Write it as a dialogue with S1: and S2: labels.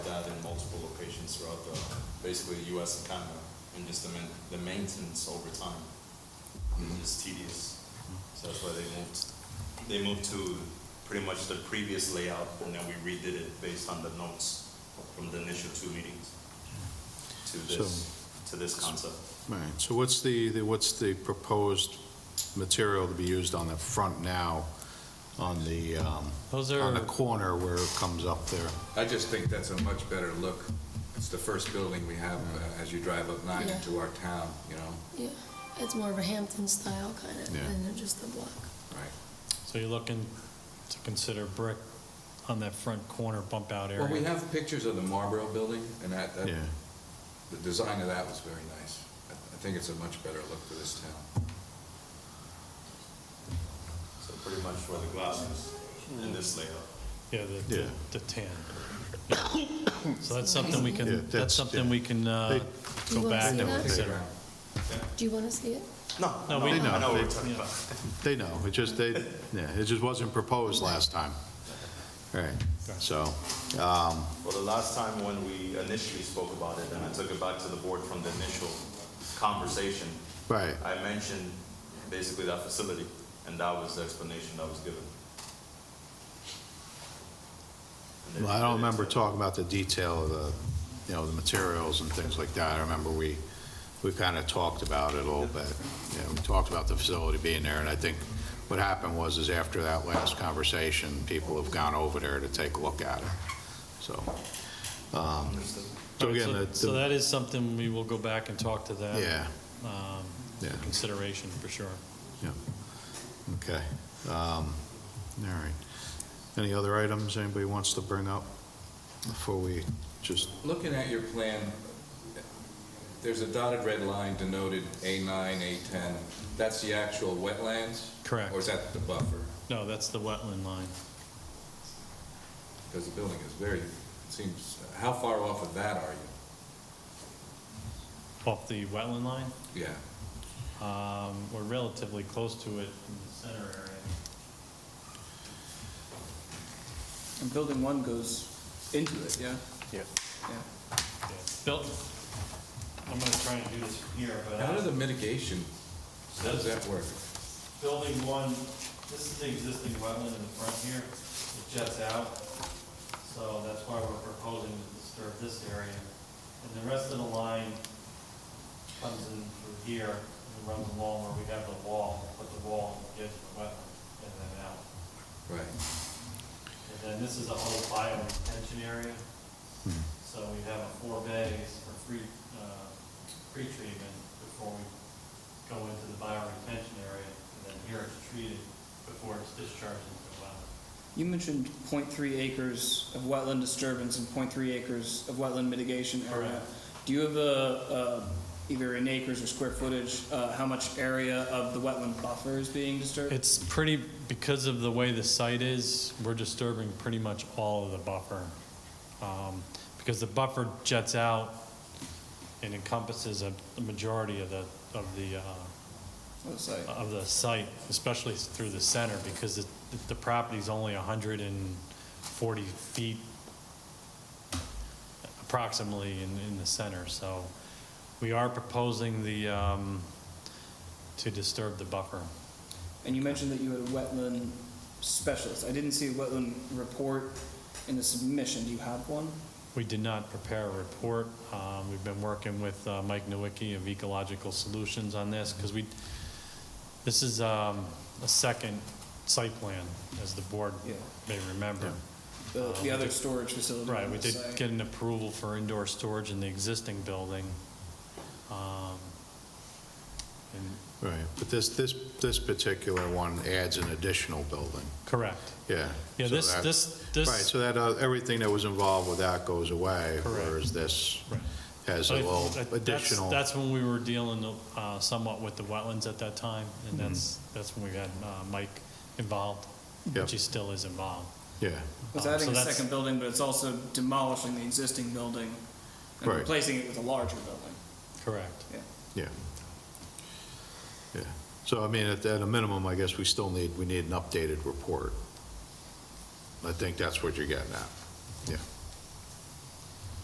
S1: stations throughout the, basically the US and Canada, and just the main, the maintenance over time is tedious. So that's why they moved, they moved to pretty much the previous layout, and then we redid it based on the notes from the initial two meetings to this, to this concept.
S2: All right, so what's the, the- what's the proposed material to be used on the front now, on the, um,
S3: Those
S2: on
S3: are-
S2: the corner where it comes up there?
S4: I just think that's a much better look. It's the first building we have uh, as you drive up nine
S5: Yeah.
S4: into our town, you know?
S5: Yeah, it's more of a Hampton style kind of
S2: Yeah.
S5: than just the block.
S4: Right.
S3: So you're looking to consider brick on that front corner bump out area?
S4: Well, we have pictures of the Marlboro building, and that, that,
S2: Yeah,
S4: the design of that was very nice. I I think it's a much better look for this town.
S1: So pretty much where the glass is in this layout.
S3: Yeah, the-
S2: Yeah.
S3: the, the tan. Yeah. So that's something we
S2: Yeah,
S3: can,
S2: that's-
S3: that's something we can uh,
S5: Do you
S3: go
S5: wanna
S3: back
S5: see
S3: and
S5: that?
S3: consider.
S5: Do you want to see it?
S1: No,
S3: No, we-
S1: I know what
S2: They-
S1: we're talking about.
S2: they know, it just, they, yeah, it just wasn't proposed last time. All right, so,
S1: Well, the last time when we initially spoke about it, and I took it back to the board from the initial conversation,
S2: right,
S1: I mentioned basically that facility, and that was the explanation that was given. And they-
S2: Well, I don't remember talking about the detail of the, you know, the materials and things like that. I remember we, we kind of talked about it a little bit. You know, we talked about the facility being there, and I think what happened was is after that last conversation, people have gone over there to take a look at it, so. um,
S1: Understood.
S2: So
S3: Right,
S2: again,
S3: so-
S2: the-
S3: So
S2: the-
S3: that is something we will go back and talk to that.
S2: yeah,
S3: um,
S2: Yeah.
S3: Consideration, for sure.
S2: yeah, okay. Um, All right. Any other items anybody wants to bring up before we just,
S4: Looking at your plan, there's a dotted red line denoted A9, A10. That's the actual wetlands?
S3: Correct.
S4: Or is that the buffer?
S3: No, that's the wetland line.
S4: Because the building is very, seems, how far off of that are
S3: Off the wetland line,
S4: you? Yeah.
S3: um, we're relatively close to it in the center area.
S6: And building one goes into it, yeah? Yeah.
S3: Yeah. Built, I'm going to try and do this from here, but. uh,
S4: How
S3: I-
S4: do the mitigation, how does that work?
S3: Building one, this is the existing wetland in the front here, it jets out, so that's why we're proposing to disturb this area. And the rest of the line comes in through here and runs along where we have the wall, We put the wall in the edge of the wetland and then out.
S4: Right.
S3: And then this is a whole bio retention area, so we have a four bays for free, uh, pre-treatment before we go into the bio retention area, and then here it's treated before it's discharged into the wetland.
S6: You mentioned 0.3 acres of wetland disturbance and 0.3 acres of wetland mitigation area.
S3: Correct.
S6: Do you have a, a- either in acres or square footage, uh, how much area of the wetland buffer is being disturbed?
S3: It's pretty, because of the way the site is, we're disturbing pretty much all of the buffer. Um, Because the buffer jets out and encompasses a a majority of the, of the uh,
S6: What is that?
S3: of the site, especially through the center, because it- the property's only 140 feet approximately in, in the center, so we are proposing the, um, to disturb the buffer.
S6: And you mentioned that you had a wetland specialist. I didn't see a wetland report in the submission. Do you have one?
S3: We did not prepare a report. Um, We've been working with uh, Mike Nowicki of Ecological Solutions on this, because we, this is um, a second site plan, as the board
S6: Yeah.
S3: may remember.
S6: The,
S3: Uh,
S6: the
S3: we
S6: other
S3: did-
S6: storage facility?
S3: Right,
S6: on
S3: we
S6: the
S3: did
S6: site.
S3: get an approval for indoor storage in the existing building. Um, and-
S2: right, but this, this, this particular one adds an additional building.
S3: Correct.
S2: Yeah.
S3: Yeah,
S2: so
S3: this,
S2: that-
S3: this,
S2: Right,
S3: this,
S2: so that, uh, everything that was involved with that goes away,
S3: Correct.
S2: whereas this
S3: Right.
S2: has a
S3: I-
S2: little
S3: I- that's-
S2: additional.
S3: That's when we were dealing uh, somewhat with the wetlands at that time, and
S2: Mm-hmm.
S3: that's, that's when we had uh, Mike involved,
S2: Yep.
S3: which he still is involved.
S2: Yeah,
S6: It's
S3: Um,
S6: adding
S3: so
S6: a
S3: that's-
S6: second building, but it's also demolishing the existing building and
S2: Right.
S6: replacing it with a larger building.
S3: Correct.
S6: Yeah.
S2: yeah. Yeah, so I mean, at, at a minimum, I guess we still need, we need an updated report. I think that's what you're getting at, yeah.